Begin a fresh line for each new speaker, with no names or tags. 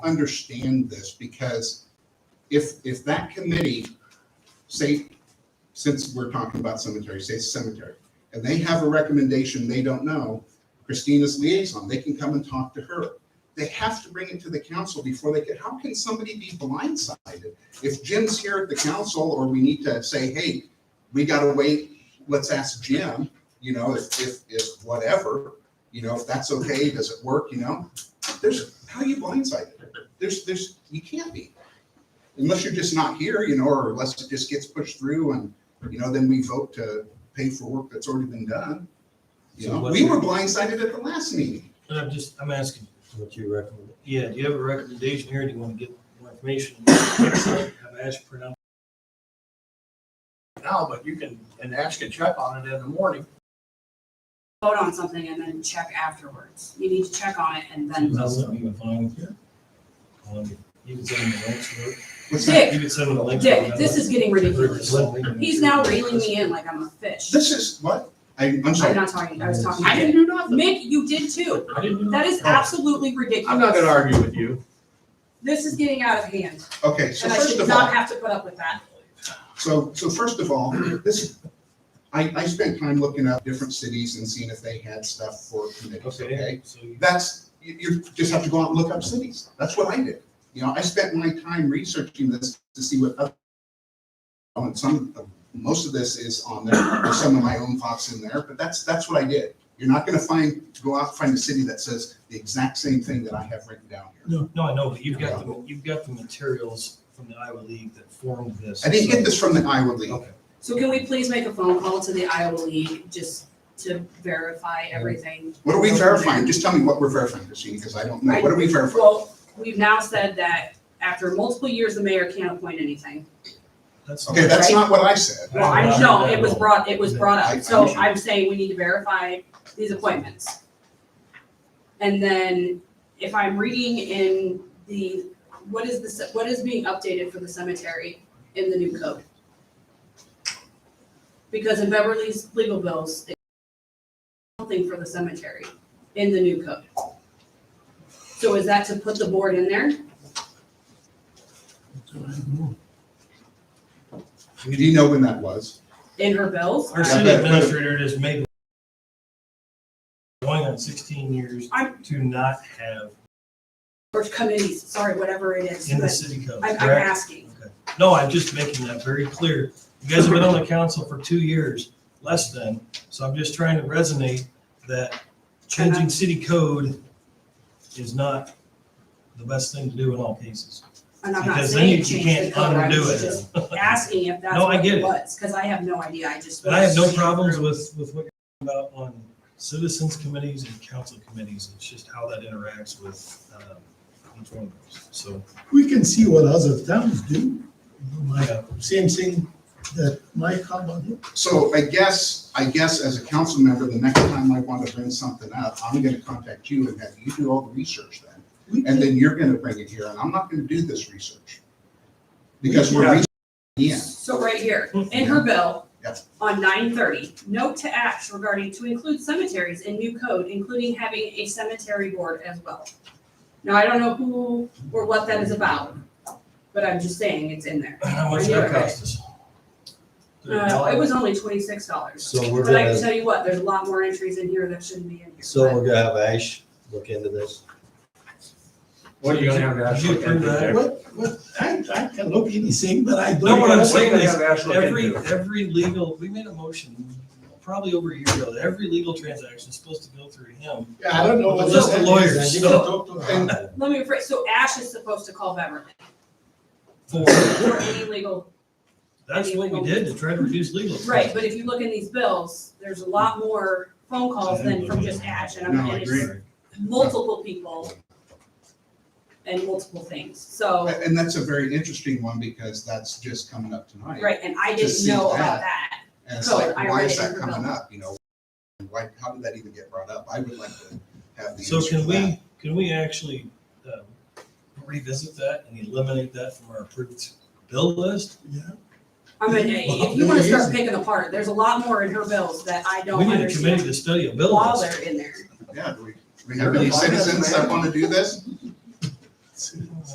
understand this because if, if that committee, say, since we're talking about cemetery, say it's cemetery, and they have a recommendation they don't know, Christina's liaison, they can come and talk to her. They have to bring it to the council before they get, how can somebody be blindsided? If Jim's here at the council or we need to say, hey, we gotta wait, let's ask Jim, you know, if, if, if whatever, you know, if that's okay, does it work, you know? There's, how are you blindsided? There's, there's, you can't be. Unless you're just not here, you know, or unless it just gets pushed through and, you know, then we vote to pay for work that's already been done. You
So
know,
what-
we were blindsided at the last meeting.
And I'm just, I'm asking,
What you recommend?
yeah, do you have a recommendation here? Do you want to get more information? Have Ash print out?
now, but you can, and Ash can check on it in the morning.
vote on something and then check afterwards. You need to check on it and then.
Is that something you're fine with here? Um, You can send them a link to it.
What's that?
Dick,
You can send them a link. to it.
Dick, this is getting ridiculous. He's now reeling me in like I'm a fish.
This is, what? I, I'm
I'm
sorry.
not talking, I was talking
I
to
didn't
Dick.
do nothing.
Mick, you did too.
I didn't know.
That is absolutely ridiculous.
I'm not gonna argue with you.
This is getting out of hand
Okay, so
and I
first
should
of all.
not have to put up with that.
So, so first of all, this, I, I spent time looking up different cities and seeing if they had stuff for committees, okay?
Okay, so you-
That's, you, you just have to go out and look up cities. That's what I did. You know, I spent my time researching this to see what other. oh, And some, most of this is on there, there's some of my own thoughts in there, but that's, that's what I did. You're not gonna find, go out and find a city that says the exact same thing that I have written down here.
No, I know, but you've got, the you've got the materials from the Iowa League that formed this.
I didn't get this from the Iowa League.
Okay.
So can we please make a phone call to the Iowa League just to verify everything?
What are we verifying? Just tell me what we're verifying, Christine, because I don't know. What are we verifying?
Well, we've now said that after multiple years, the mayor can't appoint anything.
That's-
Okay, that's not what I said.
Well, I, no, it was brought, it was brought
I- I
up, so
understand.
I'm saying we need to verify these appointments. And then if I'm reading in the, what is the, ce- what is being updated for the cemetery in the new code? Because in Beverly's legal bills, it's something for the cemetery in the new code. So is that to put the board in there?
Do you know when that was?
In her bills?
Our city administrator just made going on sixteen years
I'm-
to not have
Or committees, sorry, whatever it is,
in the
but
city code,
I'm, I'm
correct?
asking.
No, I'm just making that very clear. You guys have been on the council for two years, less than, so I'm just trying to resonate that changing city code is not the best thing to do in all cases.
And I'm not
Because then you
saying
you
change the
can't
code, I
undo
was
it.
just asking if that's
No, I
what
get
it
it.
was, because I have no idea, I just.
And I have no
was-
problems with, with what you're talking about on citizens committees and council committees. It's just how that interacts with, um, each one of those, so.
We can see what other towns do. My-
yeah.
Same thing that Mike Harmon did.
So I guess, I guess as a council member, the next time I want to bring something up, I'm gonna contact you and have you do all the research then.
We
And
can-
then you're gonna bring it here, and I'm not gonna do this research. Because we're,
Yeah.
researching the end.
So right here,
Mm-hmm.
in her bill,
Yeah.
on nine thirty, note to acts regarding to include cemeteries in new code, including having a cemetery board as well. Now, I don't know who or what that is about, but I'm just saying it's in there.
How much did that cost us?
Uh, it was only twenty-six dollars,
So we're
but I
gonna,
can tell you what, there's a lot more entries in here that shouldn't be in here.
so
but-
we're gonna have Ash look into this.
What are you gonna have Ash
Did you
look
approve
into
that?
there?
What, what, I, I can look anything, but I don't.
No, what I'm
What are
know.
you
saying
gonna
is
have Ash look
Every,
into?
every legal, we made a motion probably over a year ago, that every legal transaction is supposed to go through him.
Yeah, I don't know. what
Just the
that is.
lawyers,
I didn't
so-
talk to her.
Let me rephrase, so Ash is supposed to call Beverly
For,
for any legal
that's what we did to try to reduce legal. fees.
Right, but if you look in these bills, there's a lot more phone calls than from just Ash, and I'm,
No, I
and it's
agree.
multiple people and multiple things, so,
And that's a very interesting one, because that's just coming up tonight.
right, and I
To
didn't
see
know
that.
about that.
And it's
So
like,
I
why
read
is
it
that
in her
coming
bill.
up, you know? And Why, how did that even get brought up? I would like to have the.
So
answer
can
to that.
we, can we actually um, revisit that and eliminate that from our approved bill list?
Yeah.
I mean, if you wanna start picking apart, there's a lot more in her bills that I
We
don't
need a committee
understand
to study a bill
while
list.
they're in there.
Yeah, do we, do we have any citizens that want to do this?